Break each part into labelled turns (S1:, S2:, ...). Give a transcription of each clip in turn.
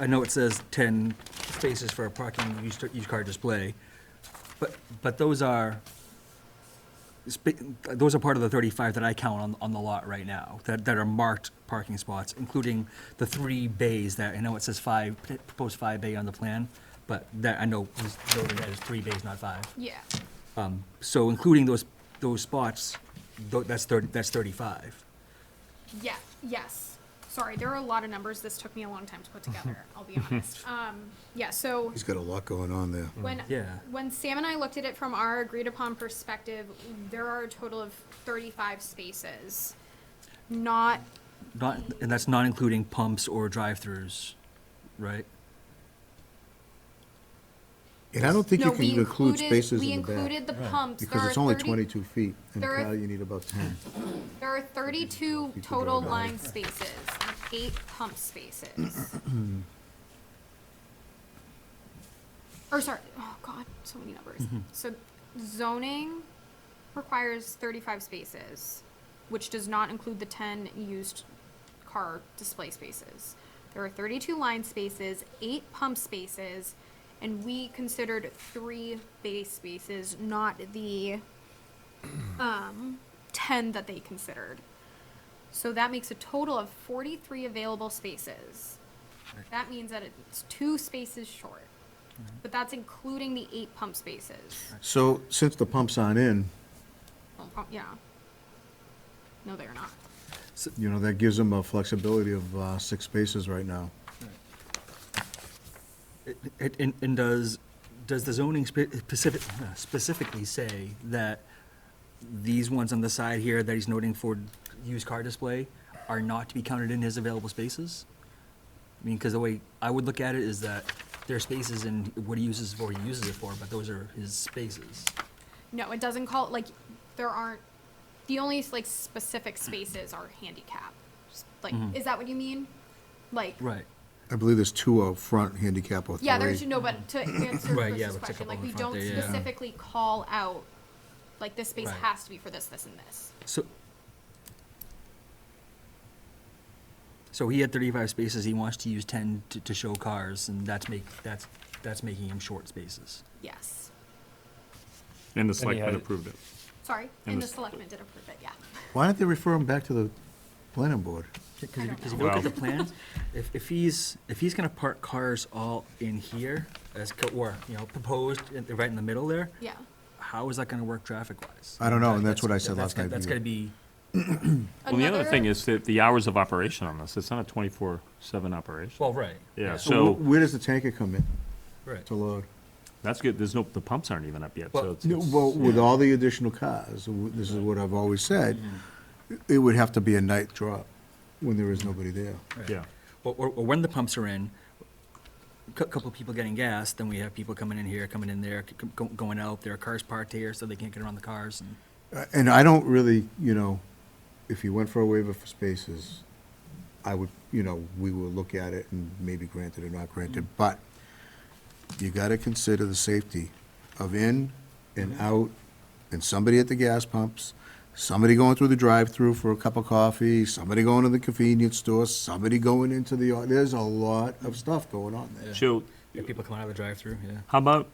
S1: I know it says 10 spaces for a parking used used car display, but, but those are, spa- those are part of the 35 that I count on, on the lot right now, that, that are marked parking spots, including the three bays that, I know it says five, proposed five bay on the plan, but that, I know this building has three bays, not five.
S2: Yeah,
S1: Um, So including those, those spots, tho- that's 30, that's 35.
S2: yeah, yes. Sorry, there are a lot of numbers. This took me a long time to put together, I'll be honest. Um, yeah, so
S3: He's got a lot going on there.
S2: when,
S1: Yeah.
S2: when Sam and I looked at it from our agreed upon perspective, there are a total of thirty-five spaces. Not,
S1: Not, and that's not including pumps or drive-throughs, right?
S3: And I don't think
S2: no,
S3: you
S2: we
S3: can include
S2: included,
S3: spaces
S2: we
S3: in the
S2: included
S3: back.
S2: the pumps. There
S3: Because
S2: are
S3: it's only
S2: 30
S3: 22 feet, and
S2: there are-
S3: probably you need about 10.
S2: There are thirty-two
S3: People
S2: total
S3: don't know.
S2: line spaces, and eight pump spaces. Or sorry, oh god, so many numbers. So zoning requires thirty-five spaces, which does not include the ten used car display spaces. There are thirty-two line spaces, eight pump spaces, and we considered three base spaces, not the um, 10 that they considered. So that makes a total of 43 available spaces. That means that it's two spaces short, but that's including the eight pump spaces.
S3: So since the pumps aren't in,
S2: Well, pump- yeah. No, they're not.
S3: you know, that gives them a flexibility of uh, six spaces right now.
S1: It- it- And, and does, does the zoning spe- specific, uh, specifically say that these ones on the side here that he's noting for used car display are not to be counted in his available spaces? I mean, because the way I would look at it is that there are spaces and what he uses for, he uses it for, but those are his spaces.
S2: No, it doesn't call, like, there aren't, the only, like, specific spaces are handicap. Just, Like, is that what you mean? Like,
S1: Right.
S3: I believe there's two out front, handicap or three.
S2: Yeah, there's no, but to answer
S1: Right, yeah,
S2: Chris's
S1: but check
S2: question,
S1: up
S2: like,
S1: on
S2: we
S1: the front
S2: don't
S1: there, yeah.
S2: specifically call out, like, this space
S1: Right.
S2: has to be for this, this, and this.
S1: So, so he had thirty-five spaces, he wants to use ten to, to show cars, and that's make, that's, that's making him short spaces.
S2: Yes.
S4: And the
S5: And he had
S4: selectmen
S5: it.
S4: approved it.
S2: Sorry,
S4: And
S2: and the
S4: the-
S2: selectmen did approve it, yeah.
S3: Why don't they refer them back to the planning board?
S1: Because
S2: I don't
S1: if you
S2: know.
S1: look at
S4: Wow.
S1: the plans, if, if he's, if he's gonna park cars all in here, as, co- or, you know, proposed, in- right in the middle there,
S2: Yeah,
S1: how is that gonna work traffic-wise?
S3: I don't know, and that's what I said last
S1: gonna-
S3: night
S1: That's
S3: to you.
S1: gonna be,
S4: Well, the other
S2: Another-
S4: thing is that the hours of operation on this, it's not a twenty-four seven operation.
S1: well, right.
S4: Yeah,
S1: right,
S4: so-
S3: Wh- Where does the tanker come in
S1: Right.
S3: to load?
S4: That's good, there's no, the pumps aren't even up yet,
S1: Well,
S4: so it's.
S3: No,
S4: it's-
S3: Well, with all the additional cars, w- this is what I've always said,
S4: Mm-hmm.
S3: it would have to be a night drop when there is nobody there.
S4: Yeah,
S1: Or, or or when the pumps are in, a couple people getting gas, then we have people coming in here, coming in there, c- c- go- going out, there are cars parked here, so they can't get around the cars, and,
S3: Uh, And I don't really, you know, if you went for a waiver for spaces, I would, you know, we will look at it and maybe grant it or not grant it, but you gotta consider the safety of in and
S4: Mm-hmm.
S3: out, and somebody at the gas pumps, somebody going through the drive-through for a cup of coffee, somebody going to the convenience store, somebody going into the, au- there's a lot of stuff going on there.
S4: so,
S1: yeah, people coming out of the drive-through, yeah.
S4: how about,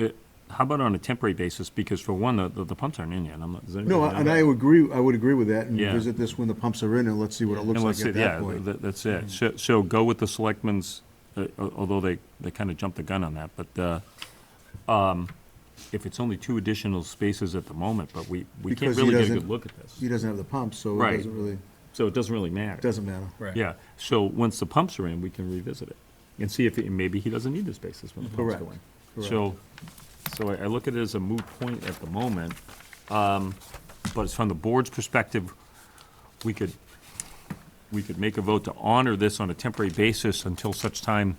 S4: uh, how about on a temporary basis, because for one, the, the the pumps aren't in yet, I'm not, does anybody
S3: No,
S4: know
S3: and
S4: that?
S3: I would agree, I would agree with that, and
S4: Yeah.
S3: visit this when the pumps are in, and let's see what it looks
S4: And
S3: like
S4: let's
S3: at
S4: see-
S3: that
S4: yeah,
S3: point.
S4: th- that's it. So, so go with the selectmen's, uh, al- although they, they kind of jumped the gun on that, but, uh, um, if it's only two additional spaces at the moment, but we, we can't
S3: Because he
S4: really get a
S3: doesn't-
S4: good look at this.
S3: he doesn't have the pump, so it
S4: Right.
S3: doesn't really,
S4: So it doesn't really matter.
S3: doesn't matter.
S1: Right.
S4: Yeah, so once the pumps are in, we can revisit it and see if, it- maybe he doesn't need the spaces when the pumps
S3: Correct,
S4: go in.
S3: correct.
S4: So, so I I look at it as a moot point at the moment, um, but it's from the board's perspective, we could, we could make a vote to honor this on a temporary basis until such time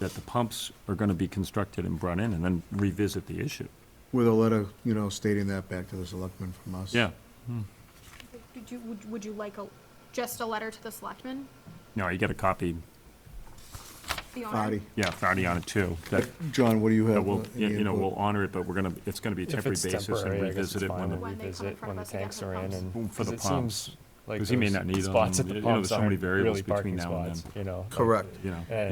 S4: that the pumps are gonna be constructed and brought in, and then revisit the issue.
S3: With a letter, you know, stating that back to the selectmen from us.
S4: Yeah,
S2: Did you, would, would you like a, just a letter to the selectmen?
S4: no, you got a copy,
S2: The owner?
S3: Artie.
S4: yeah, Friday on it too, that,
S3: John, what do you
S4: that
S3: have?
S4: we'll,
S3: uh, any
S4: you know,
S3: input?
S4: we'll honor it, but we're gonna, it's gonna be a
S5: If
S4: temporary
S5: it's
S4: basis and
S5: temporary, I guess
S4: revisit
S5: it's
S4: it
S5: fine.
S4: when the
S5: We'll
S2: When they come in
S5: revisit
S2: front
S5: when
S2: of
S5: the
S2: us again
S5: tanks
S2: for
S5: are in
S2: pumps.
S5: and.
S4: Boom, for the
S5: 'cause it
S4: pumps.
S5: seems like
S4: Because he may
S5: those
S4: not need
S5: Spots at
S4: them.
S5: the
S4: You know, there's
S5: pumps
S4: so many
S5: aren't really
S4: variables between
S5: parking
S4: now and
S5: spots,
S4: then.
S5: you know? like-
S3: Correct.
S4: you know.
S5: And